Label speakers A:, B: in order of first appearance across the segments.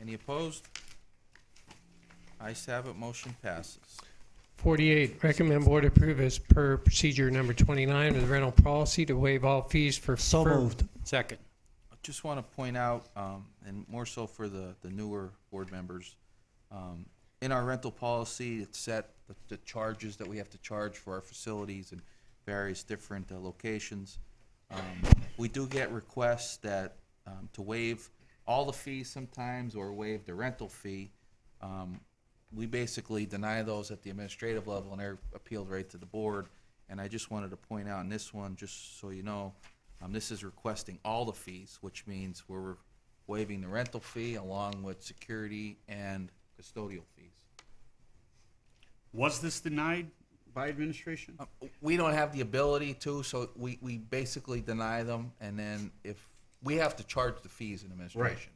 A: Any opposed? Ayes have it, motion passes.
B: 48, recommend board approve as per procedure number 29 of the rental policy to waive all fees for.
C: So
B: for-
C: moved.
D: Second.
A: I just want to point out, um, and more so for the, the newer board members, um, in our rental policy, it's set the, the charges that we have to charge for our facilities and various different uh, locations. Um, we do get requests that, um, to waive all the fees sometimes or waive the rental fee. Um, we basically deny those at the administrative level and they're appealed right to the board. And I just wanted to point out in this one, just so you know, um, this is requesting all the fees, which means we're waiving the rental fee along with security and custodial fees.
E: Was this denied by administration?
A: Uh, We don't have the ability to, so we, we basically deny them and then if, we have to charge the fees in administration.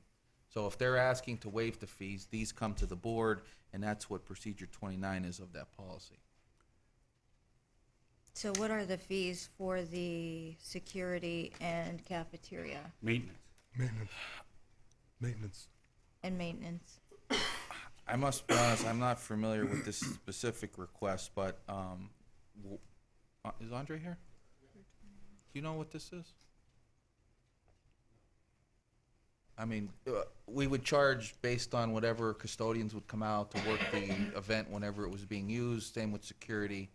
A: So if they're asking to waive the fees, these come to the board and that's what procedure twenty-nine is of that policy.
F: So what are the fees for the security and cafeteria
E: Maintenance.
C: Maintenance. Maintenance.
F: and maintenance?
A: I must be honest, I'm not familiar with this specific request, but, um, w- uh, is Andre here? Do you know what this is? I mean, uh, we would charge based on whatever custodians would come out to work the event whenever it was being used, same with security.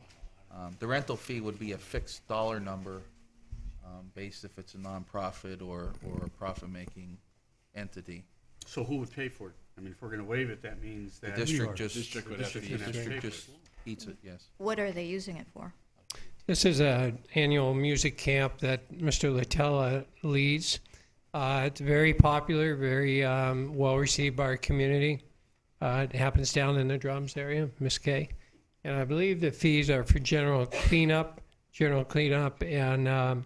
A: Um, the rental fee would be a fixed dollar number, um, based if it's a nonprofit or, or a profit-making entity.
E: So who would pay for it? I mean, if we're gonna waive it, that means
A: The
E: that.
A: district
C: are.
A: just,
G: District
A: the
G: would have to
A: district
E: use it.
A: district just eats it, yes.
F: What are they using it for?
B: This is a annual music camp that Mr. Latella leads. Uh, It's very popular, very um, well-received by our community. Uh, It happens down in the Drums area, Miss Kay. And I believe the fees are for general cleanup, general cleanup and um,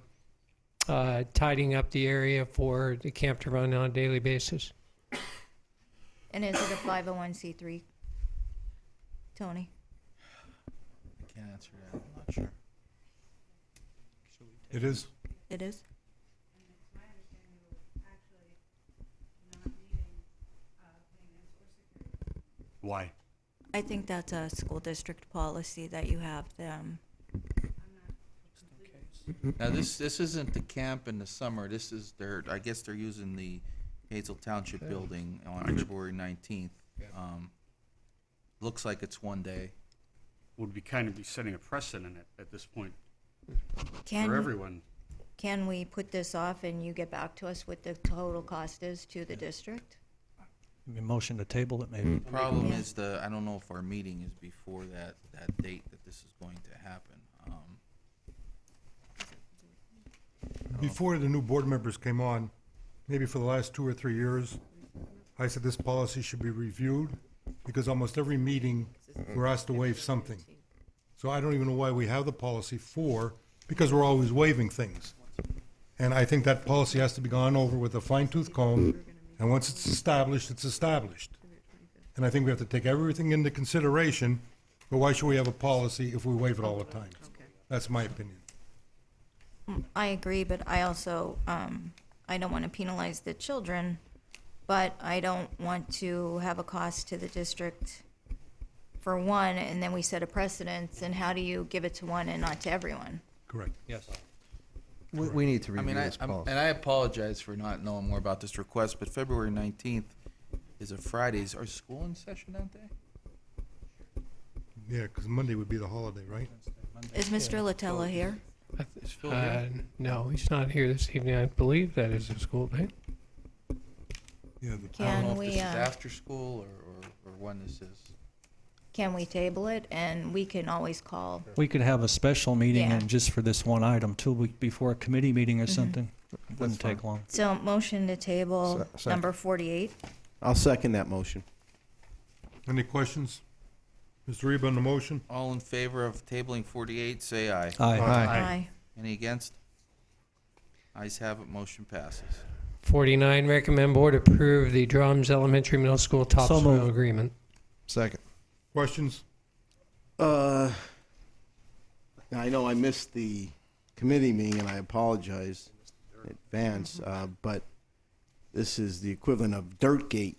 B: uh, tidying up the area for the camp to run on a daily basis.
F: And is it a 501c3? Tony?
A: I can't answer that, I'm not sure.
C: It is.
F: It is.
E: Why?
F: I think that's a school district policy that you have them.
A: Now, this, this isn't the camp in the summer, this is their, I guess they're using the Hazel Township building on February nineteenth. Um, looks like it's one day.
E: Would be kind of be setting a precedent at, at this point for
F: Can,
E: everyone.
F: can we put this off and you get back to us what the total cost is to the district?
C: I mean, Motion to table it maybe.
A: Problem is the, I don't know if our meeting is before that, that date that this is going to happen. Um,
H: Before the new board members came on, maybe for the last two or three years, I said this policy should be reviewed because almost every meeting, we're asked to waive something. So I don't even know why we have the policy for, because we're always waiving things. And I think that policy has to be gone over with a fine tooth comb, and once it's established, it's established. And I think we have to take everything into consideration, but why should we have a policy if we waive it all the time? That's my opinion.
F: I agree, but I also, um, I don't want to penalize the children, but I don't want to have a cost to the district for one, and then we set a precedence, and how do you give it to one and not to everyone?
H: Correct.
C: Yes.
G: We, we need to
A: I
G: review
A: mean, I,
G: this
A: I'm-
G: policy.
A: and I apologize for not knowing more about this request, but February nineteenth is a Friday, is our school in session that day?
H: Yeah, because Monday would be the holiday, right?
F: Is Mr. Latella here?
A: Is Phil
B: Uh,
A: here?
B: no, he's not here this evening. I believe that is a school day.
A: I
H: Yeah, the
A: don't know
F: Can
A: if
F: we,
A: this is
F: uh,
A: after school or, or, or when this is.
F: can we table it, and we can always call?
C: We could have a special meeting
F: Yeah.
C: and just for this one item, two weeks before a committee meeting or something.
G: That's
C: Wouldn't take
G: fine.
C: long.
F: So, motion to table
G: Se- second.
F: number forty-eight.
G: I'll second that motion.
H: Any questions? Mr. Reba on the motion?
A: All in favor of tabling forty-eight, say aye.
C: Aye.
F: Aye.
A: Any against? Ayes have it, motion passes.
B: 49, recommend board approve the Drums Elementary Middle School topsoil
C: moved.
B: agreement.
G: Second.
H: Questions?
G: Uh, I know I missed the committee meeting and I apologize in advance, uh, but this is the equivalent of Dirtgate